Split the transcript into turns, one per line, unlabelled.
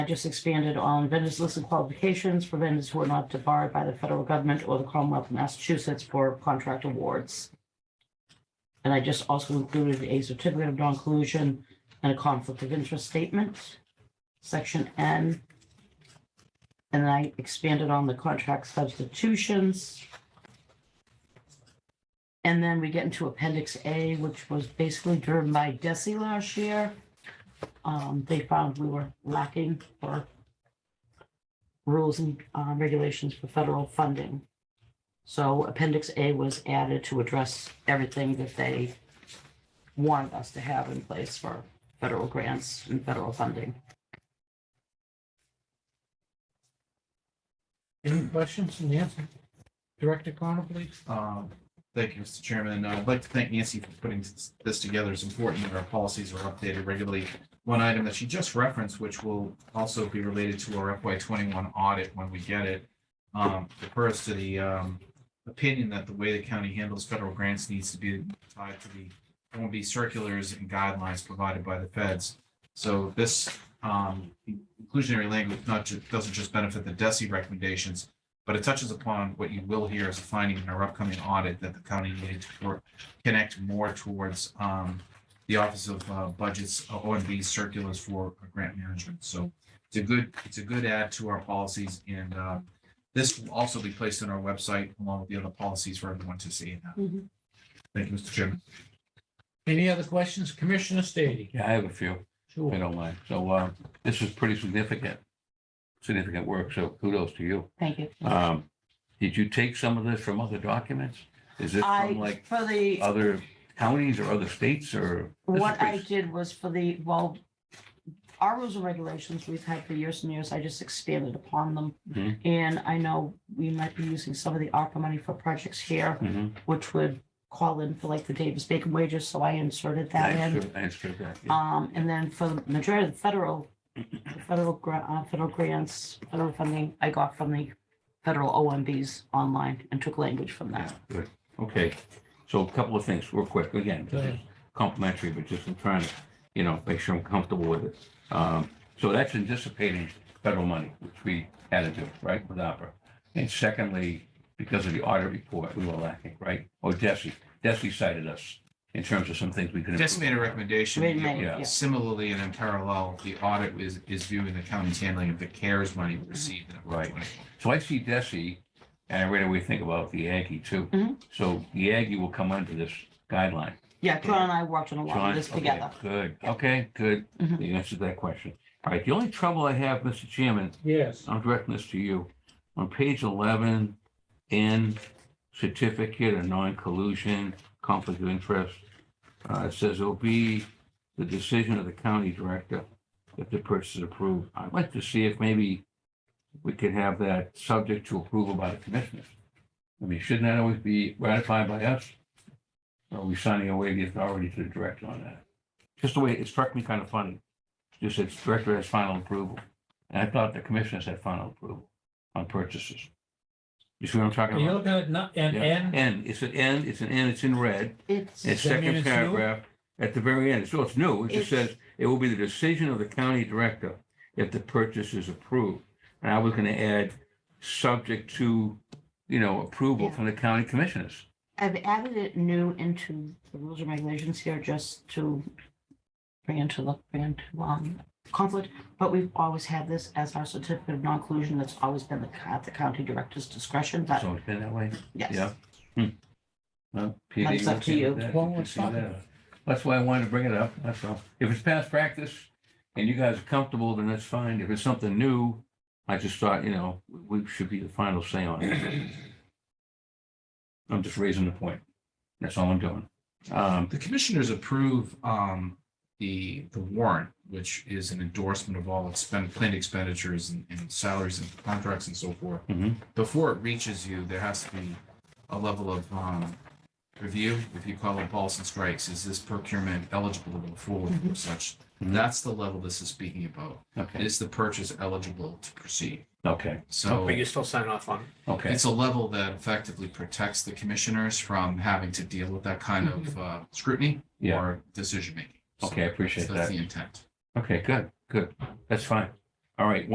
I just expanded on vendors list of qualifications for vendors who are not debarred by the federal government or the Commonwealth of Massachusetts for contract awards. And I just also included a certificate of non-collusion and a conflict of interest statement, section N. And I expanded on the contract substitutions. And then we get into Appendix A, which was basically driven by Desi last year. Um, they found we were lacking for rules and uh, regulations for federal funding. So Appendix A was added to address everything that they wanted us to have in place for federal grants and federal funding.
Any questions from Nancy? Director Connor, please.
Um, Thank you, Mr. Chairman. Uh, I'd like to thank Nancy for putting this- this together. It's important that our policies are updated regularly. One item that she just referenced, which will also be related to our FY twenty-one audit when we get it, um, refers to the um, opinion that the way the county handles federal grants needs to be tied to the OMB circulars and guidelines provided by the feds. So this um, inclusionary language not ju- doesn't just benefit the DESI recommendations, but it touches upon what you will hear as a finding in our upcoming audit that the county needed to cor- connect more towards um, the Office of uh, Budgets, O and B circulars for uh, grant management. So it's a good, it's a good add to our policies and uh, this will also be placed on our website along with the other policies for everyone to see.
Mhm.
Thank you, Mr. Chairman.
Any other questions? Commissioner Stady.
Yeah, I have a few, if I
Sure.
don't mind. So um, this is pretty significant, significant work, so kudos to you.
Thank you.
Um, Did you take some of this from other documents? Is this from
I,
like
for the,
other counties or other states or? this is
what I
pretty-
did was for the, well, our rules and regulations we've had for years and years, I just expanded upon them.
Mhm.
And I know we might be using some of the ARPA money for projects here.
Mhm.
which would call in for like the Davis Bacon wages, so I inserted that
I
in.
answered- I answered that, yeah.
Um, and then for the majority of the federal, the federal grant, uh, federal grants, federal funding, I got from the federal OMBs online and took language from
Yeah,
that.
Good, okay. So a couple of things real quick, again,
Go ahead.
complimentary, but just I'm trying to, you know, make sure I'm comfortable with it. Um, so that's anticipating federal money, which we had to do, right, with opera. And secondly, because of the audit report, we were lacking, right? Oh, Desi, Desi cited us in terms of some things we could.
Just
improve.
made a recommendation.
Wait a minute,
yeah.
yeah.
Similarly and in parallel, the audit is, is viewing the county's handling of the CARES money received. in FY
Right.
20.
So I see Desi, and I right away think about the Aggie too.
Mm-hmm.
Mhm.
So the Aggie will come under this guideline.
Yeah, John and I worked on a lot
John,
of this
okay,
together.
Good, okay, good.
Mhm.
You answered that question. All right, the only trouble I have, Mr. Chairman,
Yes.
I'm directing this to you. On page eleven, in certificate of non-collusion, conflict of interest, uh, it says it'll be the decision of the county director if the purchase is approved. I'd like to see if maybe we could have that subject to approval by the commissioners. I mean, shouldn't that always be ratified by us? Or Are we signing away the authority to the director on that? Just the way, it struck me kind of funny. Just said director has final approval. And I thought the commissioners had final approval on purchases. You see what I'm talking
You're
about?
looking at not, and,
Yeah.
and,
N, it's an N, it's an N, it's in red.
It's,
It's
Does that mean
second
it's new?
paragraph, at the very end, so it's new, it just
It's-
says, it will be the decision of the county director if the purchase is approved. And I was gonna add, subject to, you know, approval
Yeah.
from the county commissioners.
I've added it new into the rules and regulations here just to bring into the, bring into, um, conflict. But we've always had this as our certificate of non-collusion. That's always been the, co- at the county director's discretion,
Uh,
but
So it's been that way,
yes.
yeah. Hmm. Well, PD,
That's up to
okay
you.
with that?
Well,
can
let's
see
talk
that.
about it.
That's why I wanted to bring it up, that's all. If it's past practice and you guys are comfortable, then that's fine. If it's something new, I just thought, you know, we should be the final say on it. I'm just raising the point. That's all I'm doing. Um,
The commissioners approve um, the, the warrant, which is an endorsement of all expend, planned expenditures and and salaries and contracts and so forth.
mhm.
Before it reaches you, there has to be a level of um, review, if you call it balls and strikes. Is this procurement eligible to go forward or such?
Mhm.
That's the level this is speaking about.
Okay,
Is the purchase eligible to proceed?
okay,
So
But you still sign off on it.
okay.
it's a level that effectively protects the commissioners from having to deal with that kind of uh, scrutiny
Mm-hmm. Yeah.
or decision making.
Okay, I appreciate
That's
that.
the intent.
Okay, good, good. That's fine. All right,